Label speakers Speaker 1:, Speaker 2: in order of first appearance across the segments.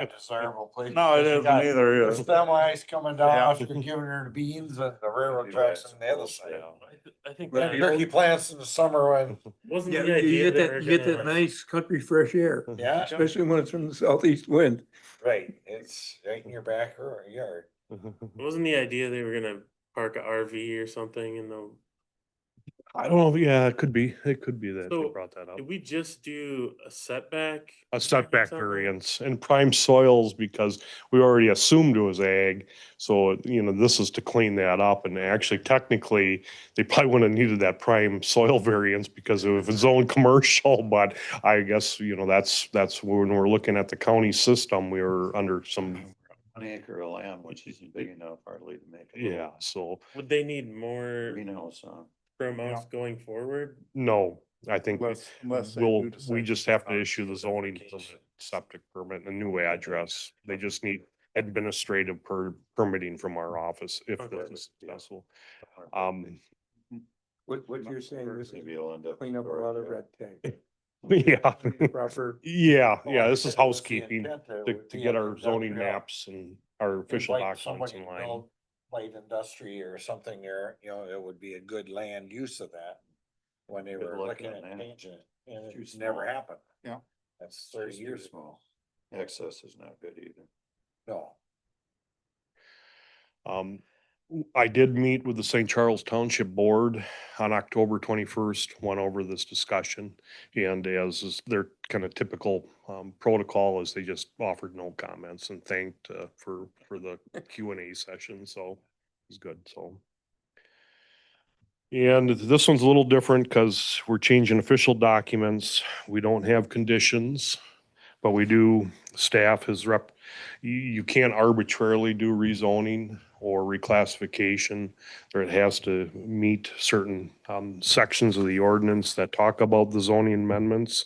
Speaker 1: that desirable place.
Speaker 2: No, it
Speaker 1: You
Speaker 2: isn't
Speaker 1: got
Speaker 2: either,
Speaker 1: the
Speaker 2: yeah.
Speaker 1: Semis coming down,
Speaker 2: Yeah.
Speaker 1: after giving her the beans and the railroad tracks on the other side.
Speaker 3: I think
Speaker 4: Right.
Speaker 3: that
Speaker 4: Yeah.
Speaker 1: Turkey plants in the summer when,
Speaker 3: wasn't
Speaker 4: Yeah,
Speaker 3: the idea.
Speaker 4: you get
Speaker 3: we
Speaker 4: that,
Speaker 3: were
Speaker 4: you get
Speaker 3: gonna-
Speaker 4: that nice country fresh air,
Speaker 1: yeah,
Speaker 4: especially when it's from the southeast wind.
Speaker 1: right, it's right in your back or your yard.
Speaker 3: Wasn't the idea they were gonna park a RV or something in the,
Speaker 5: I don't know, yeah, it could be, it could be that they
Speaker 3: So,
Speaker 5: brought that up.
Speaker 3: did we just do a setback?
Speaker 5: A setback
Speaker 3: something?
Speaker 5: variance and prime soils because we already assumed it was ag. So, you know, this is to clean that up and actually technically, they probably wouldn't have needed that prime soil variance because it was zone commercial, but I guess, you know, that's, that's when we're looking at the county system, we were under some,
Speaker 6: An acre of land, which isn't big enough hardly to make. a
Speaker 5: yeah,
Speaker 6: little
Speaker 5: so,
Speaker 3: Would they need more
Speaker 6: Greenhouse, huh?
Speaker 3: from us going forward?
Speaker 5: no, I think
Speaker 2: Unless- unless they
Speaker 5: we'll,
Speaker 2: do decide
Speaker 5: we
Speaker 2: to
Speaker 5: just have
Speaker 1: Um,
Speaker 5: to
Speaker 2: file
Speaker 5: issue the zoning
Speaker 2: application.
Speaker 5: septic permit, and a new address. They just need administrative per, permitting from our office if
Speaker 3: Okay.
Speaker 5: this is successful.
Speaker 6: Or
Speaker 5: Um,
Speaker 4: What, what you're saying is
Speaker 6: Maybe you'll end up.
Speaker 4: clean up a
Speaker 6: with
Speaker 4: lot of
Speaker 6: storage,
Speaker 4: red tape.
Speaker 5: yeah,
Speaker 4: Proper,
Speaker 5: yeah, yeah,
Speaker 1: Well,
Speaker 5: this
Speaker 1: Oh,
Speaker 5: is
Speaker 1: that was the
Speaker 5: housekeeping
Speaker 1: intent there,
Speaker 5: to,
Speaker 1: would
Speaker 5: to
Speaker 1: be
Speaker 5: get
Speaker 1: an
Speaker 5: our zoning
Speaker 1: industrial-
Speaker 5: maps and our official
Speaker 1: like
Speaker 5: documents
Speaker 1: somebody
Speaker 5: in line.
Speaker 1: built Light industry or something there, you know, it would be a good land use of that when they
Speaker 6: Good
Speaker 1: were
Speaker 6: luck
Speaker 1: looking
Speaker 6: on
Speaker 1: at
Speaker 6: that.
Speaker 1: changing it, and
Speaker 6: Too
Speaker 1: it's never
Speaker 6: small.
Speaker 1: happened.
Speaker 2: Yeah.
Speaker 1: That's
Speaker 6: it's
Speaker 1: thirty
Speaker 6: too
Speaker 1: years, ago.
Speaker 6: Small. Access is not good either.
Speaker 1: no.
Speaker 5: Um, w- I did meet with the St. Charles Township Board on October twenty-first, went over this discussion. And as is their kind of typical, um, protocol is they just offered no comments and thanked, uh, for, for the Q and A session, so it's good, so. And this one's a little different because we're changing official documents. We don't have conditions, but we do, staff has rep, you, you can't arbitrarily do rezoning or reclassification, or it has to meet certain um, sections of the ordinance that talk about the zoning amendments.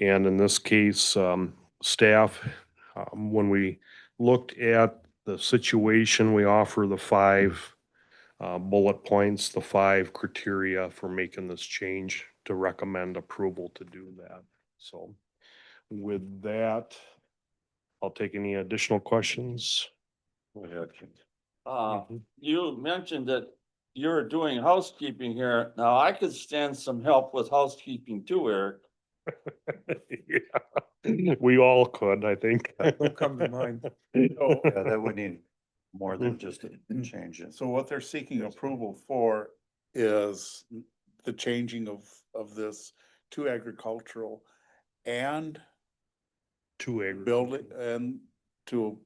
Speaker 5: And in this case, um, staff, um, when we looked at the situation, we offer the five uh, bullet points, the five criteria for making this change to recommend approval to do that. So with that, I'll take any additional questions.
Speaker 7: Uh, you mentioned that you're doing housekeeping here. Now, I could stand some help with housekeeping too, Eric.
Speaker 5: Yeah. We all could, I think.
Speaker 4: will come to mind.
Speaker 6: Oh, Yeah, that would need more than just a change. it.
Speaker 2: So what they're seeking approval for is the changing of, of this to agricultural and
Speaker 5: Two acres.
Speaker 2: building, and to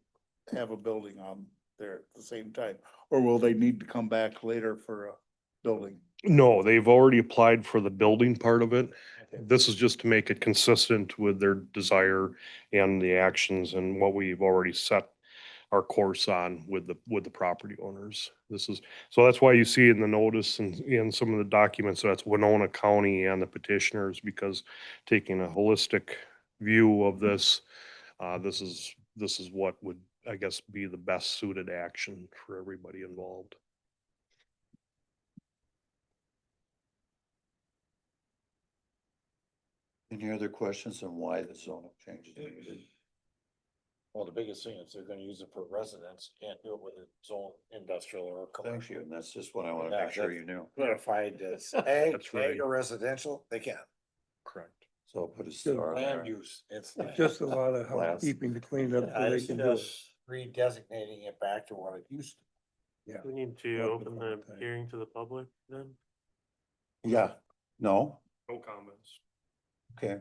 Speaker 2: have a building on there at the same time? Or will they need to come back later for a building?
Speaker 5: No, they've already applied for the building part of it. This is just to make it consistent with their desire and the actions and what we've already set our course on with the, with the property owners. This is, so that's why you see in the notice and in some of the documents, that's Winona County and the petitioners, because taking a holistic view of this, uh, this is, this is what would, I guess, be the best suited action for everybody involved.
Speaker 6: Any other questions on why the zone changes? needed?
Speaker 1: Well, the biggest thing is they're gonna use it for residents, you can't do it with its own industrial or
Speaker 6: Thank you,
Speaker 1: commercial.
Speaker 6: and that's just what I want to
Speaker 1: Yeah,
Speaker 6: make sure
Speaker 1: that's-
Speaker 6: you knew.
Speaker 1: Clarified as ag,
Speaker 5: That's right.
Speaker 1: ag or residential, they can,
Speaker 5: Correct.
Speaker 6: So I'll put a
Speaker 4: Still
Speaker 6: star there.
Speaker 1: land use, it's.
Speaker 4: Just a lot of
Speaker 6: Glass.
Speaker 4: housekeeping to clean it up so
Speaker 1: I
Speaker 4: they
Speaker 1: was
Speaker 4: can do it.
Speaker 1: just redesignating it back to what it used to.
Speaker 3: We need to
Speaker 4: Open
Speaker 3: open
Speaker 4: all
Speaker 3: the
Speaker 4: the time.
Speaker 3: hearing to the public then?
Speaker 6: Yeah, no,
Speaker 5: No comments.
Speaker 3: I
Speaker 6: okay,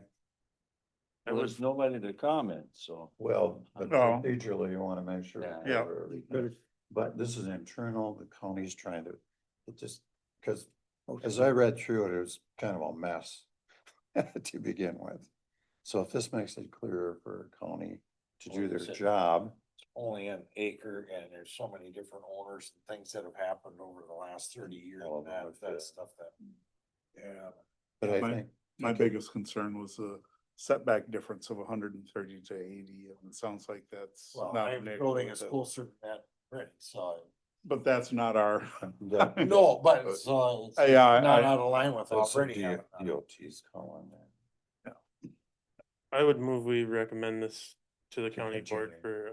Speaker 7: There
Speaker 3: would,
Speaker 7: was nobody to comment, so.
Speaker 6: well, but
Speaker 2: No.
Speaker 6: procedurally, you want to make sure.
Speaker 7: Yeah.
Speaker 2: Yeah.
Speaker 6: we're-
Speaker 4: Better
Speaker 6: But this is internal, the county's trying to, it just, because as I read through it, it was kind of a mess to begin with. So if this makes it clearer for a county to do their job,
Speaker 1: only an acre and there's so many different owners and things that have happened over the last thirty years
Speaker 6: All
Speaker 1: and
Speaker 6: of them
Speaker 1: that,
Speaker 6: have
Speaker 1: that
Speaker 6: fit.
Speaker 1: stuff that. Yeah,
Speaker 6: but I
Speaker 2: My-
Speaker 6: think.
Speaker 2: My biggest concern was the setback difference of hundred and thirty to eighty, and it sounds like that's
Speaker 1: well,
Speaker 2: not.
Speaker 1: I'm
Speaker 2: an issue
Speaker 1: building
Speaker 2: with
Speaker 1: is
Speaker 2: it.
Speaker 1: closer than that, right, so.
Speaker 2: But that's not our.
Speaker 6: that-
Speaker 1: No, but it's, uh, it's
Speaker 2: Yeah, I-
Speaker 1: not
Speaker 2: I,
Speaker 1: out of line with
Speaker 6: That's the
Speaker 1: already.
Speaker 6: D-
Speaker 1: having that.
Speaker 6: DOT's calling that.
Speaker 3: I would move we recommend this
Speaker 6: to the county board
Speaker 3: Continuing.
Speaker 6: for